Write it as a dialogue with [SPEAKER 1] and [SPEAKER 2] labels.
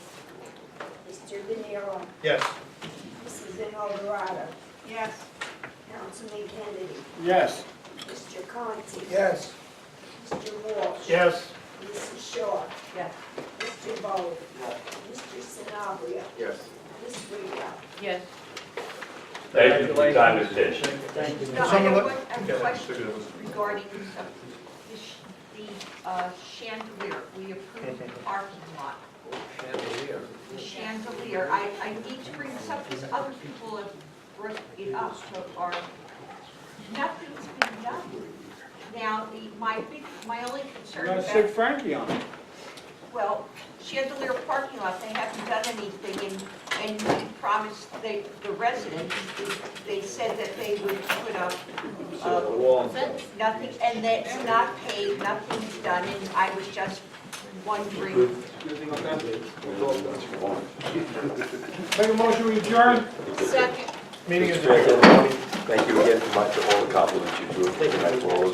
[SPEAKER 1] Mr. Venero,
[SPEAKER 2] Yes.
[SPEAKER 1] Mrs. Inalderada,
[SPEAKER 3] Yes.
[SPEAKER 1] Councilman Kennedy,
[SPEAKER 2] Yes.
[SPEAKER 1] Mr. Conti.
[SPEAKER 2] Yes.
[SPEAKER 1] Mr. Walsh.
[SPEAKER 2] Yes.
[SPEAKER 1] Mrs. Shaw,
[SPEAKER 3] Yes.
[SPEAKER 1] Mr. Bowler. Mr. Sanabria,
[SPEAKER 2] Yes.
[SPEAKER 1] Ms. Reno.
[SPEAKER 3] Yes.
[SPEAKER 4] Thank you for your time and attention.
[SPEAKER 2] Thank you.
[SPEAKER 3] No, I have one, I have a question
[SPEAKER 2] Yes.
[SPEAKER 3] regarding uh, the sh- the uh, chandelier. We approved the parking lot. The chandelier, I, I need to bring this up because other people have brought it up, so are, nothing's been done. Now, the, my big, my only concern
[SPEAKER 5] Gotta
[SPEAKER 3] about.
[SPEAKER 5] stick Frankie on it.
[SPEAKER 3] Well, Chandelier parking lot, they haven't done anything, and, and we promised they, the residents, they said that they would put up, uh, nothing, and that's not paid, nothing's done, and I was just wondering.
[SPEAKER 5] Make a motion, we adjourn.
[SPEAKER 3] Second.
[SPEAKER 2] Meeting is
[SPEAKER 4] Thank you again for my- for all the compliments you drew tonight, for all the